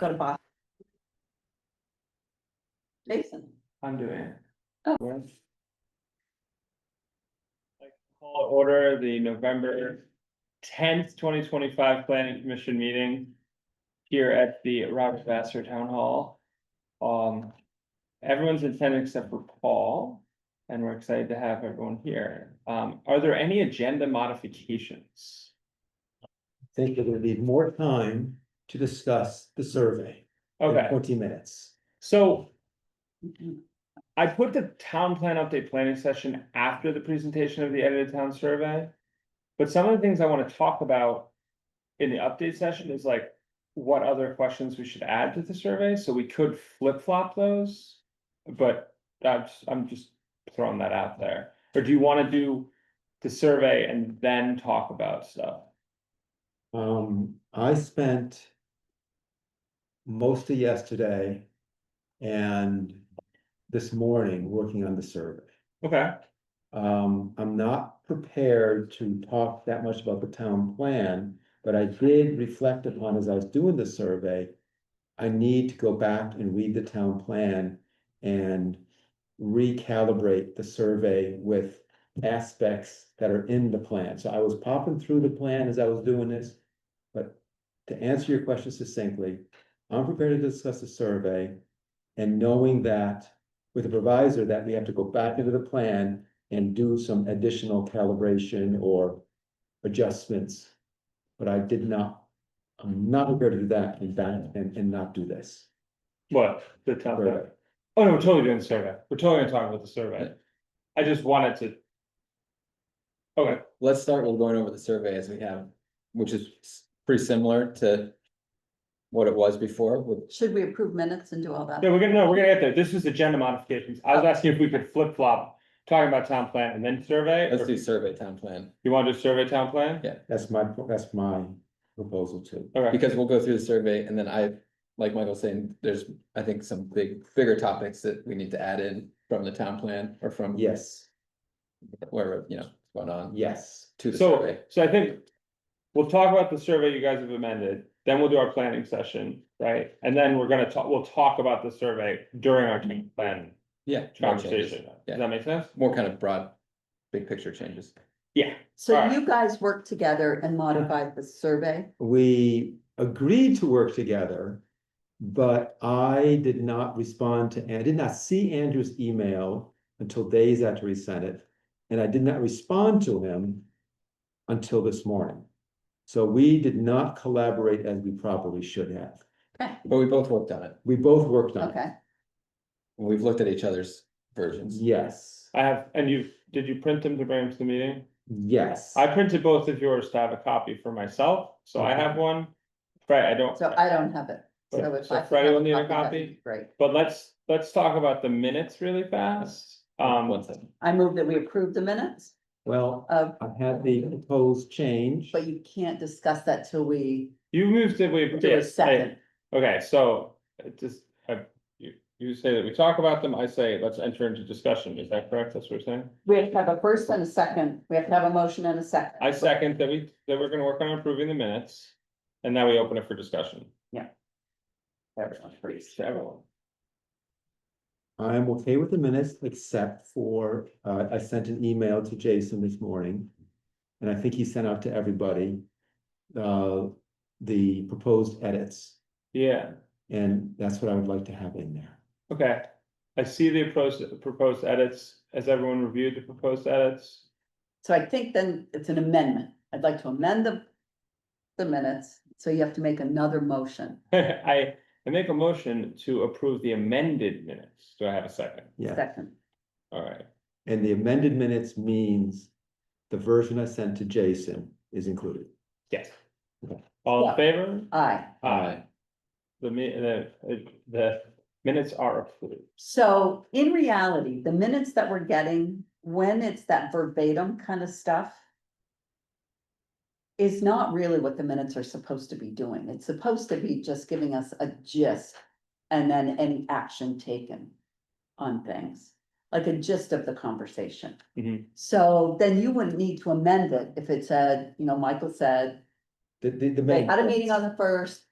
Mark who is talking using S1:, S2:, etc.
S1: go to Boston. Jason,
S2: I'm doing it.
S1: Oh.
S2: Yes. Call to order the November tenth, twenty twenty-five planning commission meeting. Here at the Robert Vassar Town Hall. Um, everyone's in attendance except for Paul, and we're excited to have everyone here. Um, are there any agenda modifications?
S3: think it would need more time to discuss the survey. than
S2: Okay,
S3: Twenty minutes.
S2: so I put the town plan update planning session after the presentation of the edited town survey. But some of the things I wanna talk about in the update session is like, what other questions we should add to the survey, so we could flip flop those. But that's, I'm just throwing that out there, or do you wanna do the survey and then talk about stuff?
S3: Um, I spent. Most of yesterday. And this morning, working on the survey.
S2: Okay,
S3: Um, I'm not prepared to talk that much about the town plan, but I did reflect upon as I was doing the survey. I need to go back and read the town plan and recalibrate the survey with aspects that are in the plan. So I was popping through the plan as I was doing this. But to answer your question succinctly, I'm prepared to discuss the survey and knowing that with the provisor that we have to go back into the plan and do some additional calibration or adjustments. But I did not, I'm not prepared to do that and that and and not do this.
S2: what, the town plan? Oh, no, we're totally doing the survey. We're totally gonna talk about the survey. I just wanted to. Okay,
S4: Let's start with going over the survey as we have, which is s- pretty similar to. What it was before with,
S1: should we approve minutes and do all that?
S2: yeah, we're gonna, no, we're gonna get there. This was agenda modifications. I
S4: Oh.
S2: was asking if we could flip flop, talking about town plan and then survey.
S4: let's
S2: or
S4: do survey town plan,
S2: You want to do survey town plan?
S4: Yeah.
S3: That's my, that's my proposal too.
S2: Okay,
S4: because we'll go through the survey and then I, like Michael's saying, there's, I think, some big, bigger topics that we need to add in. From the town plan or from
S3: Yes,
S4: wherever, you know, what's going on
S3: yes,
S4: to the
S2: so,
S4: survey.
S2: so I think. We'll talk about the survey you guys have amended, then we'll do our planning session, right? And then we're gonna talk, we'll talk about the survey during our town plan
S4: Yeah. more changes.
S2: conversation.
S4: Yeah.
S2: Does that make sense?
S4: More kind of broad, big picture changes.
S2: Yeah,
S1: So
S2: alright.
S1: you guys worked together and modified the survey?
S3: we agreed to work together. But I did not respond to, and I did not see Andrew's email until days after he sent it. And I did not respond to him until this morning. So we did not collaborate as we probably should have.
S4: But we both worked on it.
S3: We both worked on it.
S1: Okay,
S4: We've looked at each other's versions.
S3: Yes,
S2: I have, and you, did you print them to bring them to the meeting?
S3: yes.
S2: I printed both of yours to have a copy for myself, so I have one. Right, I don't,
S1: so I don't have it. So if
S2: So
S1: I could
S2: Freddie
S1: have
S2: will need a
S1: that'd
S2: copy?
S1: be Great.
S2: but let's, let's talk about the minutes really fast.
S4: One
S2: Um,
S4: second.
S1: I move that we approve the minutes
S3: Well,
S1: of,
S3: I had the proposed change.
S1: but you can't discuss that till we
S2: you moved it, we.
S1: do a second.
S2: Okay, so it just, I- you, you say that we talk about them, I say, let's enter into discussion, is that correct? That's what we're saying?
S1: We have to have a first and a second. We have to have a motion and a second.
S2: I second that we, that we're gonna work on improving the minutes, and now we open it for discussion.
S1: Everyone agrees.
S2: To everyone.
S3: I'm okay with the minutes, except for, uh, I sent an email to Jason this morning. And I think he sent out to everybody, uh, the proposed edits,
S2: Yeah,
S3: and that's what I would like to have in there.
S2: okay. I see the proposed, proposed edits. Has everyone reviewed the proposed edits?
S1: So I think then it's an amendment. I'd like to amend the, the minutes, so you have to make another motion.
S2: I, I make a motion to approve the amended minutes. Do I have a second?
S3: Yeah,
S1: Second,
S2: All right,
S3: and the amended minutes means the version I sent to Jason is included.
S2: yes. All in
S1: Yeah.
S2: favor?
S1: aye.
S2: Aye. The mi- the, the minutes are approved.
S1: So in reality, the minutes that we're getting, when it's that verbatim kind of stuff. Is not really what the minutes are supposed to be doing. It's supposed to be just giving us a gist. And then any action taken on things, like a gist of the conversation.
S2: Mhm.
S1: So then you wouldn't need to amend it if it said, you know, Michael said,
S3: The, the, the.
S1: they had a meeting on the first,